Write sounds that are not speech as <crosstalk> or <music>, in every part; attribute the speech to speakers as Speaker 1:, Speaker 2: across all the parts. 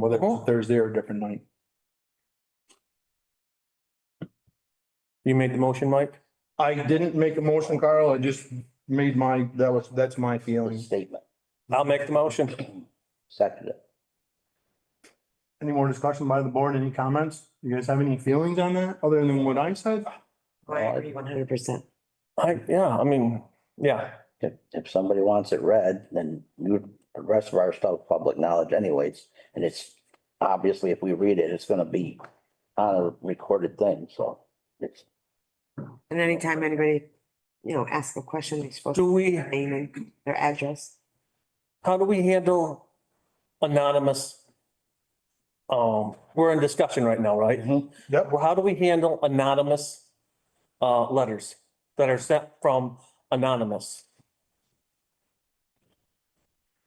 Speaker 1: whether it was
Speaker 2: Cool.
Speaker 1: Thursday or a different night.
Speaker 2: You made the motion, Mike?
Speaker 1: I didn't make a motion, Carl. I just made my, that was, that's my
Speaker 3: the
Speaker 1: feeling.
Speaker 3: statement, <clears throat>
Speaker 2: I'll make the motion.
Speaker 3: second it.
Speaker 1: Any more discussion by the board? Any comments? You guys have any feelings on that other than what I said?
Speaker 4: I agree one hundred percent.
Speaker 2: I, yeah, I mean, yeah,
Speaker 3: If, if somebody wants it read, then you, the rest of our stuff, public knowledge anyways, and it's obviously if we read it, it's gonna be on a recorded thing, so it's,
Speaker 4: And anytime anybody, you know, asks a question, they're supposed to
Speaker 2: do we,
Speaker 4: their name and their address.
Speaker 2: how do we handle anonymous? Um, we're in discussion right now, right?
Speaker 1: Yep.
Speaker 2: Well, how do we handle anonymous uh letters that are sent from anonymous?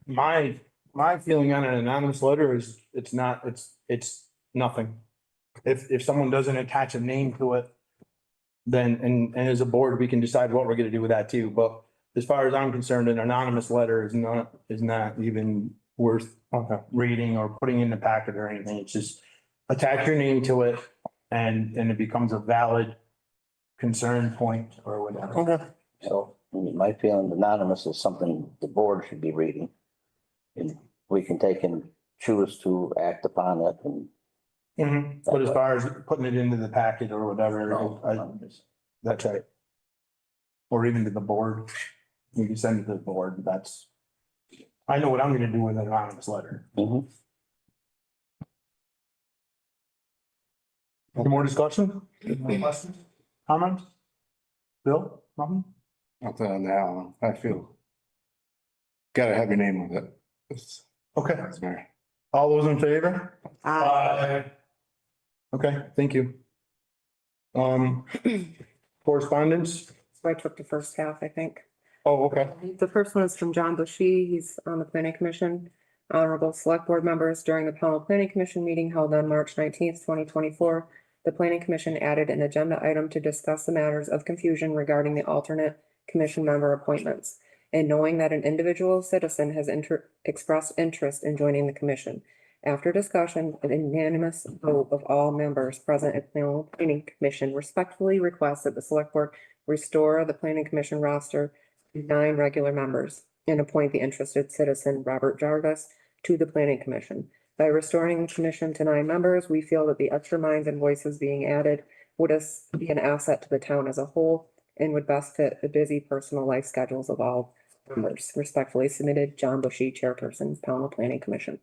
Speaker 1: My, my feeling on an anonymous letter is it's not, it's, it's nothing. If, if someone doesn't attach a name to it, then, and, and as a board, we can decide what we're gonna do with that too. But as far as I'm concerned, an anonymous letter is not, is not even worth uh,
Speaker 2: Okay.
Speaker 1: reading or putting in the packet or anything. It's just attach your name to it and, and it becomes a valid concern point or whatever.
Speaker 2: Okay.
Speaker 3: so, I mean, my feeling anonymous is something the board should be reading. And we can take and choose to act upon it and.
Speaker 1: Mhm. But as far as putting it into the packet or whatever, I, that's right. Or even to the board. You can send it to the board. That's, I know what I'm gonna do with an anonymous letter.
Speaker 3: Mhm.
Speaker 1: Any more discussion? Any Questions? Comments? Bill, nothing?
Speaker 5: Nothing on that one, I feel. Gotta have your name with it. It's-
Speaker 1: Okay.
Speaker 5: that's very-
Speaker 1: All those in favor?
Speaker 4: Uh,
Speaker 1: Okay, thank you. Um, correspondence?
Speaker 6: So I took the first half, I think.
Speaker 1: Oh, okay.
Speaker 6: The first one is from John Bushy. He's on the planning commission. Honorable select board members during the panel planning commission meeting held on March nineteenth, twenty twenty-four. The planning commission added an agenda item to discuss the matters of confusion regarding the alternate commission member appointments. And knowing that an individual citizen has inter- expressed interest in joining the commission. After discussion, an unanimous vote of all members present at the planning commission respectfully requests that the select board restore the planning commission roster nine regular members and appoint the interested citizen, Robert Jarvis, to the planning commission. By restoring the commission to nine members, we feel that the extra minds and voices being added would as- be an asset to the town as a whole and would best fit the busy personal life schedules of all members. Respectfully submitted, John Bushy, Chairperson, Pownell Planning Commission.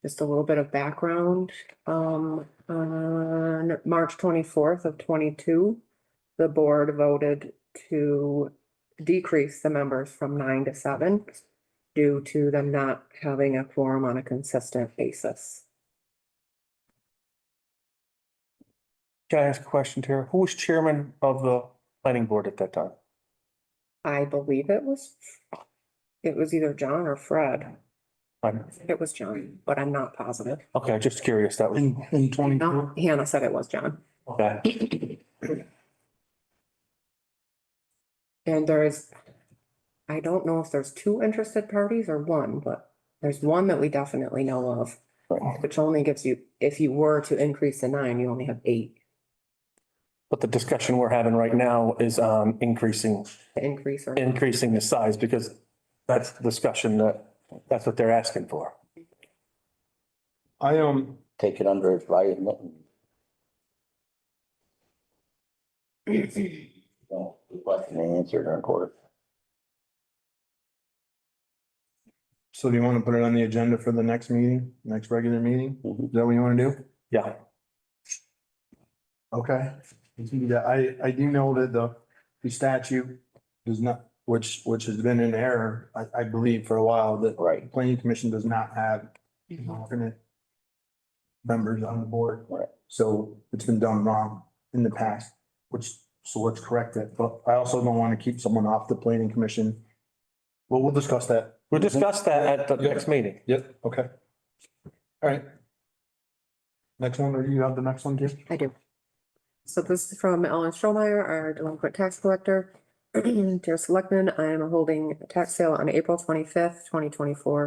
Speaker 6: Just a little bit of background, um, on March twenty-fourth of twenty-two, the board voted to decrease the members from nine to seven due to them not having a quorum on a consistent basis.
Speaker 2: Can I ask a question, Tara? Who was chairman of the planning board at that time?
Speaker 6: I believe it was, it was either John or Fred.
Speaker 2: I'm-
Speaker 6: It was John, but I'm not positive.
Speaker 2: Okay, just curious, that was,
Speaker 1: In, in twenty-four.
Speaker 6: No, Hannah said it was John.
Speaker 2: okay.
Speaker 6: And there is, I don't know if there's two interested parties or one, but there's one that we definitely know of, which only gives you, if you were to increase the nine, you only have eight
Speaker 2: But the discussion we're having right now is on increasing,
Speaker 6: to increase or.
Speaker 2: increasing the size because that's the discussion that, that's what they're asking for.
Speaker 1: I, um,
Speaker 3: Take it under advisement. and- So, Question and answer during court.
Speaker 1: so do you wanna put it on the agenda for the next meeting, next regular meeting?
Speaker 3: Mhm.
Speaker 2: Mm-hmm.
Speaker 1: Is that what you wanna do?
Speaker 2: Yeah.
Speaker 1: Okay. You can do that. I, I do know that the, the statute does not, which, which has been in error, I, I believe for a while, that
Speaker 3: Right,
Speaker 1: planning commission does not have alternate members on the board.
Speaker 3: Right.
Speaker 1: So it's been done wrong in the past, which, so let's correct it. But I also don't want to keep someone off the planning commission. Well, we'll discuss that.
Speaker 2: We'll discuss that at the next meeting.
Speaker 1: Yep. Okay. All right. Next one, or you have the next one, Jim?
Speaker 6: I do. So this is from Ellen Stromeyer, our delinquent tax <clears throat> collector. Dear Selectmen, I am holding a tax sale on April twenty-fifth, twenty twenty-four.